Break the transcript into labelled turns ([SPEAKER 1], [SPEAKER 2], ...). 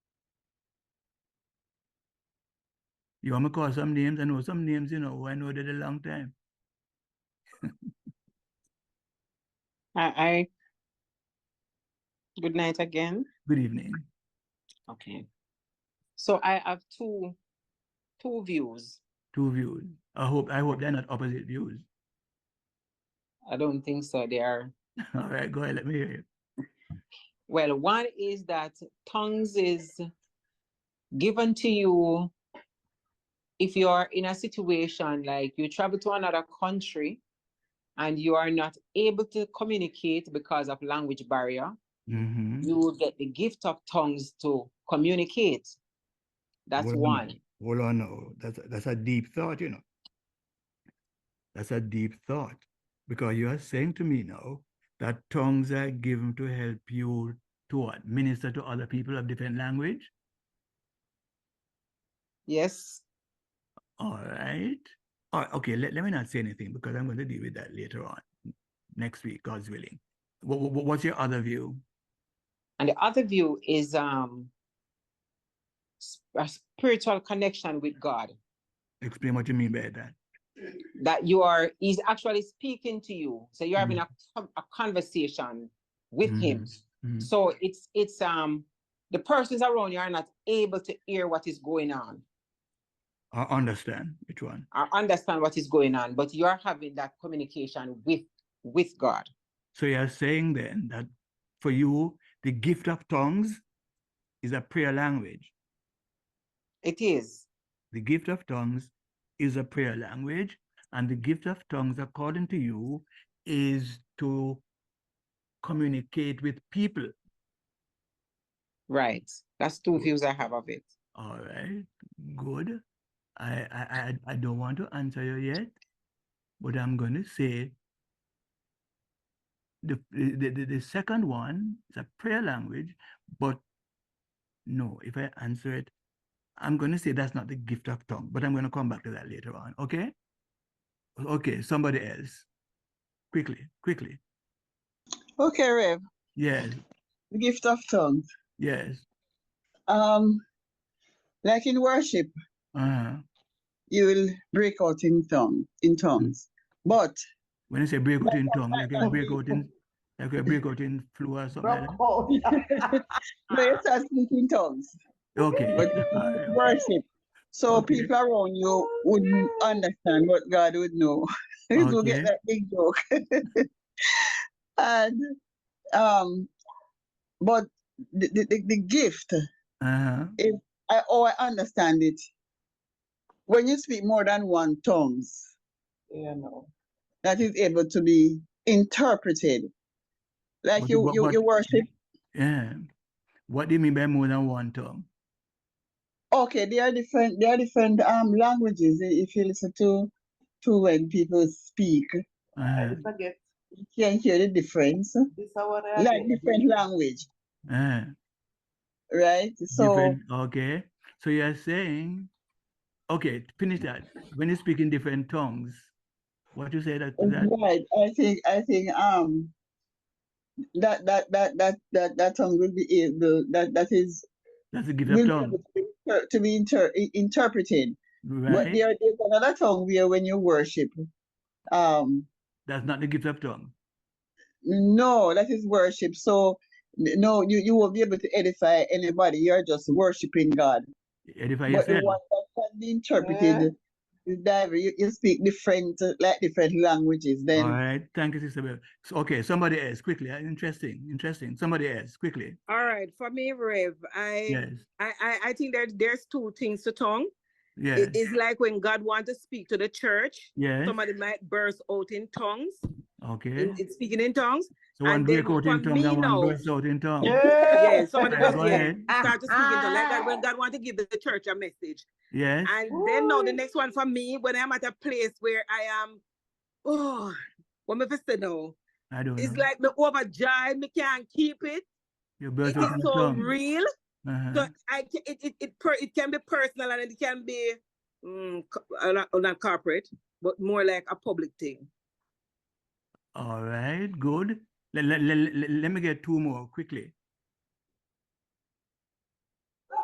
[SPEAKER 1] You want me to call some names? I know some names, you know, who I know did a long time.
[SPEAKER 2] I, I, good night again.
[SPEAKER 1] Good evening.
[SPEAKER 2] Okay. So I have two, two views.
[SPEAKER 1] Two views. I hope I hope they're not opposite views.
[SPEAKER 2] I don't think so. They are,
[SPEAKER 1] All right, go ahead. Let me hear you.
[SPEAKER 2] well, one is that tongues is given to you if you are in a situation like you travel to another country and you are not able to communicate because of language barrier,
[SPEAKER 1] Mhm.
[SPEAKER 2] you will get the gift of tongues to communicate. That's
[SPEAKER 1] Hold
[SPEAKER 2] one.
[SPEAKER 1] Hold on now. That's a- that's a deep thought, you know. That's a deep thought. Because you are saying to me now that tongues are given to help you to what? Minister to other people of different language.
[SPEAKER 2] Yes.
[SPEAKER 1] All right. All right. Okay. Let, let me not say anything because I'm going to deal with that later on next week, God's willing. What, what, what's your other view?
[SPEAKER 2] And the other view is um s- a spiritual connection with God
[SPEAKER 1] Explain what you mean by that.
[SPEAKER 2] that you are he's actually speaking to you. So you're having a, com- a conversation with him.
[SPEAKER 1] Mhm.
[SPEAKER 2] So it's it's um the persons around you are not able to hear what is going on
[SPEAKER 1] I understand which one.
[SPEAKER 2] or understand what is going on, but you are having that communication with with God.
[SPEAKER 1] So you're saying then that for you, the gift of tongues is a prayer language.
[SPEAKER 2] It is.
[SPEAKER 1] The gift of tongues is a prayer language. And the gift of tongues, according to you, is to communicate with people.
[SPEAKER 2] Right. That's two
[SPEAKER 1] Good.
[SPEAKER 2] views I have of it.
[SPEAKER 1] All right, good. I, I, I, I don't want to answer you yet, but I'm going to say the, the, the, the second one is a prayer language, but no, if I answer it, I'm going to say that's not the gift of tongue, but I'm going to come back to that later on. Okay. Okay. Somebody else. Quickly, quickly.
[SPEAKER 3] Okay, Rev,
[SPEAKER 1] Yes.
[SPEAKER 3] the gift of tongues.
[SPEAKER 1] Yes.
[SPEAKER 3] Um, like in worship,
[SPEAKER 1] Uh-huh.
[SPEAKER 3] you will break out in tongue, in tongues. But
[SPEAKER 1] When I say break out in tongue, like a break out in, like a break out in flu or something like that.
[SPEAKER 3] no, you start speaking tongues.
[SPEAKER 1] Okay. Uh,
[SPEAKER 3] But
[SPEAKER 1] all right.
[SPEAKER 3] worship. So
[SPEAKER 1] Okay.
[SPEAKER 3] people around you wouldn't understand what God would know. you will get
[SPEAKER 1] Okay.
[SPEAKER 3] that big joke. and um, but the, the, the, the gift,
[SPEAKER 1] Uh-huh.
[SPEAKER 3] I oh I understand it. When you speak more than one tongues,
[SPEAKER 2] Yeah, no.
[SPEAKER 3] that is able to be interpreted. Like
[SPEAKER 1] But-
[SPEAKER 3] you,
[SPEAKER 1] but-
[SPEAKER 3] you,
[SPEAKER 1] but-
[SPEAKER 3] you worship.
[SPEAKER 1] Yeah. What do you mean by more than one tongue?
[SPEAKER 3] Okay, there are different there are different um languages i- if you listen to to when people speak.
[SPEAKER 1] Uh,
[SPEAKER 4] forget
[SPEAKER 3] You can hear the difference.
[SPEAKER 4] this hour.
[SPEAKER 3] Like different language,
[SPEAKER 1] uh,
[SPEAKER 3] right? So
[SPEAKER 1] different. Okay. So you're saying, okay, finish that. When you speak in different tongues, what you say that, that
[SPEAKER 3] right, I think I think um that that that that that that tongue will be able that that is
[SPEAKER 1] that's a gift of
[SPEAKER 3] will be
[SPEAKER 1] tongue,
[SPEAKER 3] able to be inter- to be inter- i- interpreted. But
[SPEAKER 1] right?
[SPEAKER 3] there there's another tongue where when you worship, um
[SPEAKER 1] That's not the gift of tongue.
[SPEAKER 3] No, that is worship. So n- no, you, you won't be able to edify anybody. You're just worshiping God.
[SPEAKER 1] Edify
[SPEAKER 3] But the
[SPEAKER 1] yourself.
[SPEAKER 3] one that can be interpreted is diver. You, you speak different uh, like different languishes.
[SPEAKER 1] All
[SPEAKER 3] Then
[SPEAKER 1] right. Thank you, Sister Bell. So, okay. Somebody else, quickly. Uh, Interesting. Interesting. Somebody else, quickly.
[SPEAKER 4] All right, for me, Rev, I,
[SPEAKER 1] Yes.
[SPEAKER 4] I, I, I think that there's two things to tongue.
[SPEAKER 1] Yes.
[SPEAKER 4] It is like when God wants to speak to the church,
[SPEAKER 1] Yes.
[SPEAKER 4] somebody might burst out in tongues,
[SPEAKER 1] Okay.
[SPEAKER 4] in, in speaking in tongues.
[SPEAKER 1] So one
[SPEAKER 4] and
[SPEAKER 1] break
[SPEAKER 4] then
[SPEAKER 1] out in
[SPEAKER 4] for
[SPEAKER 1] tongue
[SPEAKER 4] me
[SPEAKER 1] and one
[SPEAKER 4] now-
[SPEAKER 1] burst out in tongue.
[SPEAKER 4] Yeah, somebody
[SPEAKER 1] Yeah,
[SPEAKER 4] was,
[SPEAKER 1] go
[SPEAKER 4] yeah,
[SPEAKER 1] ahead.
[SPEAKER 4] start to speak in tongues, like that when God wants to give the church a message.
[SPEAKER 1] Yes.
[SPEAKER 4] And then now the next one for me, when I'm at a place where I am, oh, what am I supposed to know?
[SPEAKER 1] I don't
[SPEAKER 4] It's
[SPEAKER 1] know.
[SPEAKER 4] like me overjoyed, me can't keep it.
[SPEAKER 1] You
[SPEAKER 4] It
[SPEAKER 1] burst
[SPEAKER 4] is
[SPEAKER 1] out in
[SPEAKER 4] so
[SPEAKER 1] tongue.
[SPEAKER 4] real. So
[SPEAKER 1] Uh-huh.
[SPEAKER 4] I, ca- it, it, it, per, it can be personal and it can be mm, co- uh, not, not corporate, but more like a public thing.
[SPEAKER 1] All right, good. Let, let, let, let me get two more quickly.